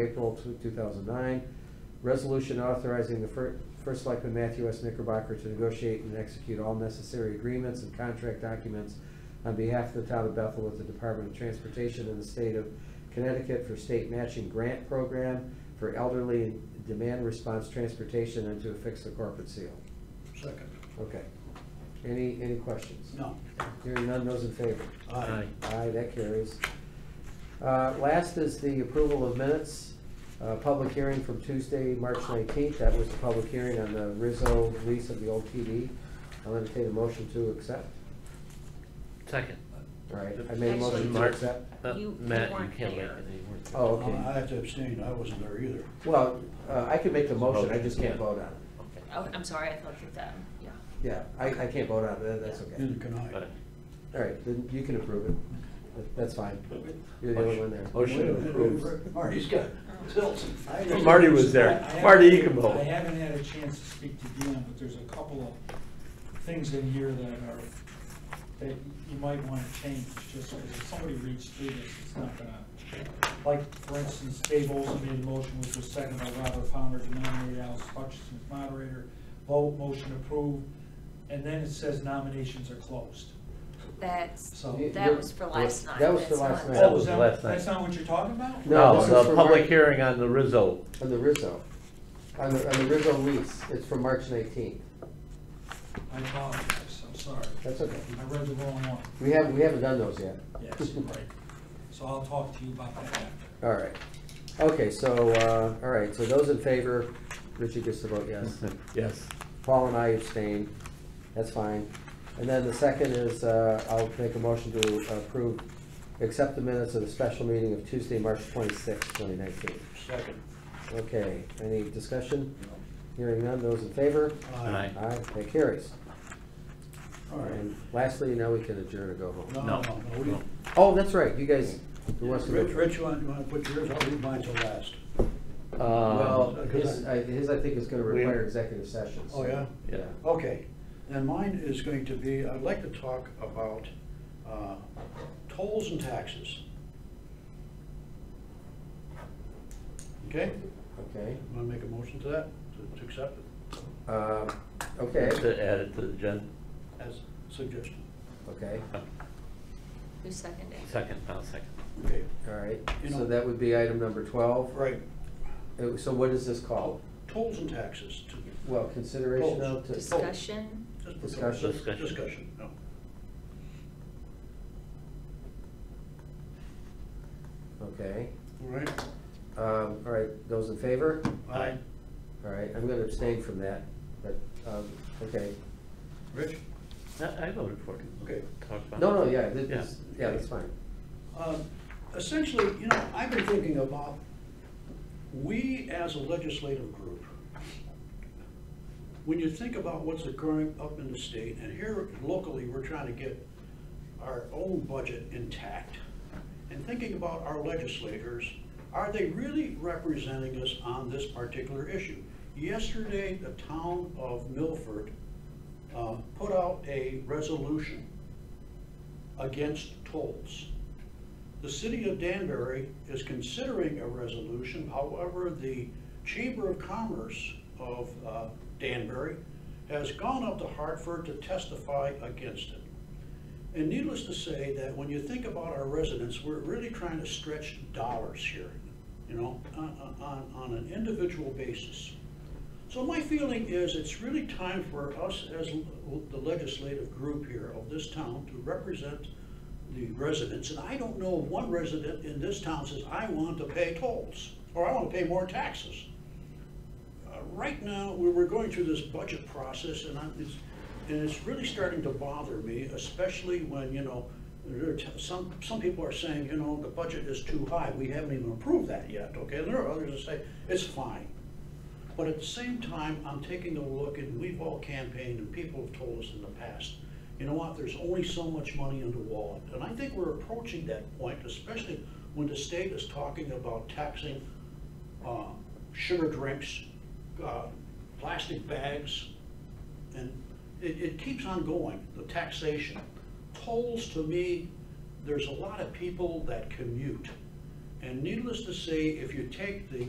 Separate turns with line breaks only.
April two- 2009, resolution authorizing the fir- First Selectman Matthew S. Knickerbocker to negotiate and execute all necessary agreements and contract documents on behalf of the town of Bethel with the Department of Transportation and the state of Connecticut for state matching grant program for elderly and demand response transportation and to affix the corporate seal.
Second.
Okay. Any, any questions?
No.
Hearing none, those in favor?
Aye.
Aye, that carries. Uh, Last is the approval of minutes, Uh, public hearing from Tuesday, March 19th. That was the public hearing on the Rizzo lease of the old PD. I'll entertain a motion to accept.
Second.
All right, I made a motion to
Mark.
accept.
Uh,
You-
Matt,
you
you
weren't
can't make
there.
it. You weren't there.
Oh,
Uh, I
okay.
have to abstain, I wasn't there either.
Well, uh, I can make the motion, I just can't
Yeah.
vote on it.
Okay.
Oh, I'm sorry, I thought you that, um, yeah.
Yeah, I I can't vote on it, that- that's okay.
Neither can
Got it.
I.
All right, then you can approve it. That- That's fine. You're the only one there.
Wait a
Motion
minute,
approved.
Marty's got tilts.
I haven't-
Marty was there.
I haven't-
Marty, you can vote.
I haven't had a chance to speak to Dion, but there's a couple of things in here that are, that you might want to change, just because if somebody reads through this, it's not gonna, like, for instance, Dave Olson made a motion, which was seconded by Robert Palmer, to nominate Alice Hutchinson as moderator, vote, motion approved, and then it says nominations are closed.
That's,
So-
that was for last night.
That was for
that's
last
not-
night. That
Oh,
was
is that-
last night.
That's not what you're talking about?
No,
No,
this is for
the
Mark.
Oh, public hearing on the Rizzo.
On the Rizzo, on the on the Rizzo lease, it's from March 19th.
I apologize, I'm sorry.
That's okay.
I read the wrong one.
We haven't, we haven't done those yet.
Yes, right. So I'll talk to you about that after.
All right. Okay, so, uh, all right, so those in favor, Richard gets to vote yes.
Yes.
Paul and I abstain. That's fine. And then the second is, uh, I'll make a motion to approve, accept the minutes of the special meeting of Tuesday, March twenty-sixth, twenty nineteen.
Second.
Okay, any discussion? Hearing none, those in favor?
Aye.
Aye, that carries.
All right.
And lastly, now we can adjourn and go home.
No,
No,
no, no, we-
no.
Oh, that's right, you guys, who wants to go?
Rich, Rich, you want, you want to put yours, I'll leave mine till last.
Well,
Um,
Uh, his, I- his, I think, is gonna
We-
require executive sessions.
Oh, yeah?
Yeah.
Okay, and mine is going to be, I'd like to talk about uh, tolls and taxes. Okay,
Okay,
want to make a motion to that, to- to accept it
um, okay,
To add it to the agenda.
as suggestion?
okay,
Who seconded?
Second, I'll second.
Okay,
all right.
You
So
know-
that would be item number twelve.
right,
Uh, So what is this called?
tolls and taxes, to-
Well, consideration of. to-
Discussion?
just-
Discussion?
Discussion, no.
Okay,
All right?
um, all right, those in favor?
Aye.
All right, I'm gonna abstain from that, but, um, okay.
Rich?
Uh,
I I voted for it.
Okay.
Talk about
No, no,
it.
yeah, this- this, yeah, that's fine.
Um, Essentially, you know, I've been thinking about, we as a legislative group, when you think about what's occurring up in the state, and here locally, we're trying to get our own budget intact, and thinking about our legislators, are they really representing us on this particular issue? Yesterday, the town of Milford uh, put out a resolution against tolls. The city of Danbury is considering a resolution, however, the Chamber of Commerce of uh, Danbury has gone up to Hartford to testify against it. And needless to say that when you think about our residents, we're really trying to stretch dollars here, you know, on, on, on an individual basis. So my feeling is it's really time for us as l- the legislative group here of this town to represent the residents. And I don't know of one resident in this town says, I want to pay tolls, or I want to pay more taxes. Uh, Right now, we- we're going through this budget process and I'm, it's, and it's really starting to bother me, especially when, you know, there are t- some, some people are saying, you know, the budget is too high, we haven't even approved that yet, okay? And there are others that say, it's fine. But at the same time, I'm taking a look, and we've all campaigned, and people have told us in the past, you know what, there's only so much money in the wallet. And I think we're approaching that point, especially when the state is talking about taxing uh, sugar drinks, uh, plastic bags, and it, it keeps on going, the taxation. Tolls, to me, there's a lot of people that commute, And needless to say, if you take the